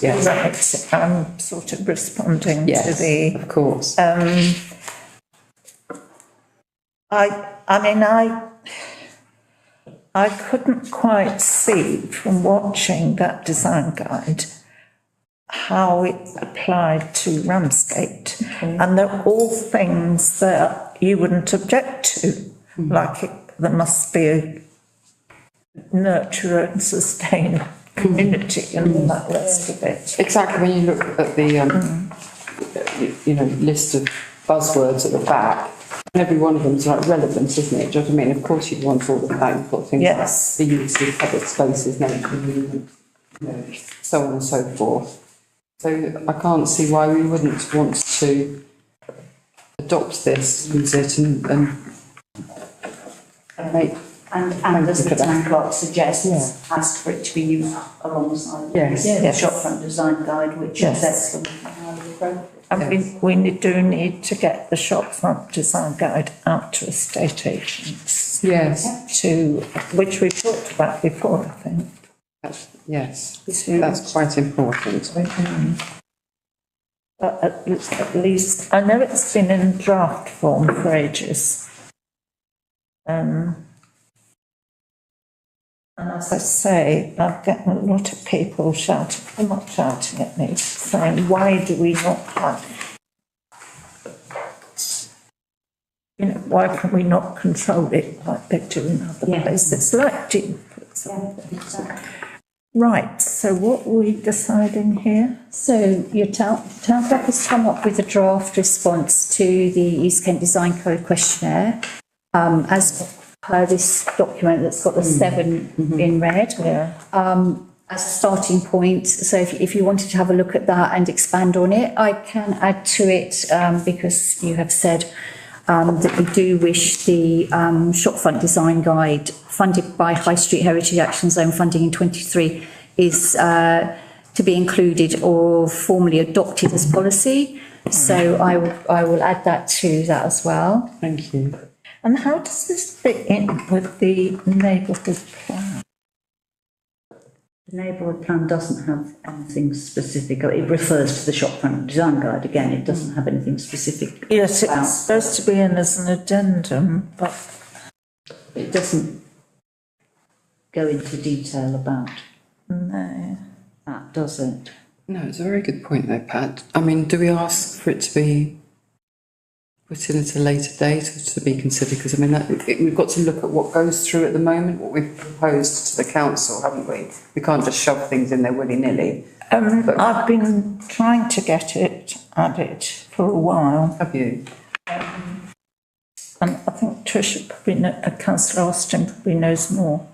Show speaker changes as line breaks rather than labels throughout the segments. Yes.
Right, I'm sort of responding to
Yes,
the,
of course.
um, I, I mean, I, I couldn't quite see from watching that design guide how it applied to Ramsgate. And they're all things that you wouldn't object to, like it, there must be a nurture and sustain community and all that rest of it.
Exactly, when you look at the, um, you- you know, list of buzzwords at the back, and every one of them's like relevant, isn't it? Do you know what I mean? Of course you'd want all of that, you've got things like
Yes.
the use of public spaces, nature, movement, you know, so on and so forth. So I can't see why we wouldn't want to adopt this, use it and, and and make,
And, and as the
Look at that.
town clerk suggests, ask for it to be used alongside
Yes.
the
Yes.
shopfront design guide, which
Yes.
sets them highly appropriate.
And we, we ne- do need to get the shopfront design guide out to estate agents
yes,
to, which we talked about before, I think.
that's, yes,
To,
that's quite important.
um, but at, l- at least, I know it's been in draft form for ages. Um, and as I say, I've gotten a lot of people shouting, they're not shouting at me, saying, why do we not have? You know, why can we not control it like they do in other
Yeah.
places, like Dean, for
Yeah,
example?
exactly.
Right, so what were we deciding here?
So your town, town clerk has come up with a draft response to the East Kent Design Code questionnaire. Um, as per this document that's got the seven in red.
Yeah.
Um, as a starting point, so if, if you wanted to have a look at that and expand on it, I can add to it, um, because you have said um, that you do wish the um, shopfront design guide funded by High Street Heritage Action Zone funding in 23 is uh, to be included or formally adopted as policy. So I will, I will add that to that as well.
Thank you.
And how does this fit in with the neighbourhood plan?
The neighbourhood plan doesn't have anything specific, it refers to the shopfront design guide, again, it doesn't have anything specific.
Yes,
about-
it's supposed to be in as an addendum, but
It doesn't go into detail about
no.
that, does it?
No, it's a very good point though, Pat. I mean, do we ask for it to be put in at a later date or to be considered? Because I mean, that, it- we've got to look at what goes through at the moment, what we've proposed to the council, haven't we? We can't just shove things in there willy-nilly,
Um, I've been trying to get it added for a while,
have you?
and I think Tricia probably, kno- uh, councillor Austin probably knows more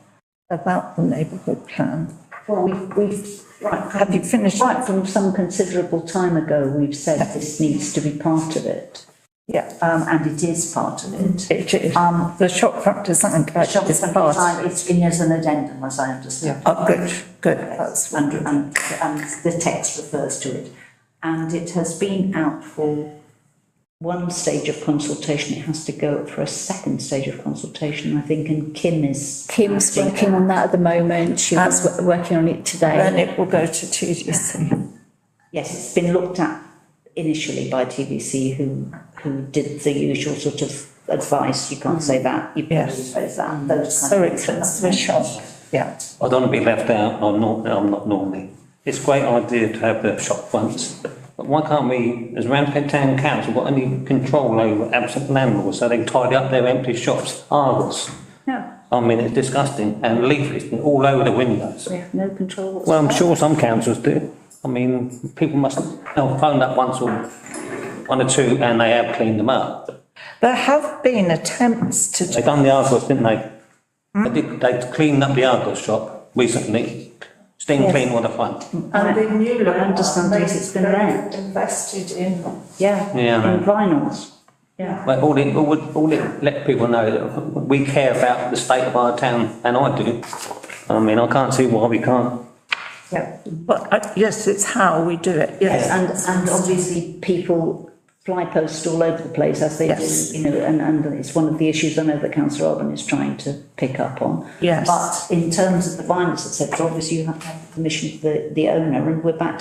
about the neighbourhood plan.
Well, we've, we've, right,
Have you finished?
Right from some considerable time ago, we've said this needs to be part of it,
Yeah,
um, and it is part of it.
it is.
Um,
The shopfront design guide
Shop
is
front
part of
design,
it.
it's in as an addendum, as I understand.
Oh, good, good, that's
And, and, and the text refers to it. And it has been out for one stage of consultation, it has to go for a second stage of consultation, I think, and Kim is.
Kim's working on that at the moment. She was wo- working on it today.
Then it will go to TDC.
Yes, it's been looked at initially by TBC, who, who did the usual sort of advice, you can't say that, you can't
Yes.
say that, those
So
kind of
it
things.
comes with shop, yeah.
I don't want to be left out, I'm not, I'm not normally. It's a great idea to have the shop fronts, but why can't we, has Ramsgate Town Council got any control over absent landlords, so they tidy up their empty shops, ours?
No,
I mean, it's disgusting, and leaflets all over the windows.
we have no control whatsoever.
Well, I'm sure some councils do. I mean, people must, they'll phone up once or, one or two, and they have cleaned them up.
There have been attempts to
They done the Argos, didn't they? They did, they cleaned up the Argos shop recently, steam clean all the front.
And the new look.
I understand this, it's been there.
Invested in.
Yeah,
Yeah.
and vinyls. Yeah.
But all it, all it, all it let people know that we care about the state of our town, and I do. I mean, I can't see why we can't.
Yeah. But, uh, yes, it's how we do it, yes.
And, and obviously people fly posts all over the place as they
Yes.
do, you know, and, and it's one of the issues I know that councillor Alban is trying to pick up on.
Yes.
But in terms of the vinyls, etc., obviously you have to have the permission of the, the owner, and we're back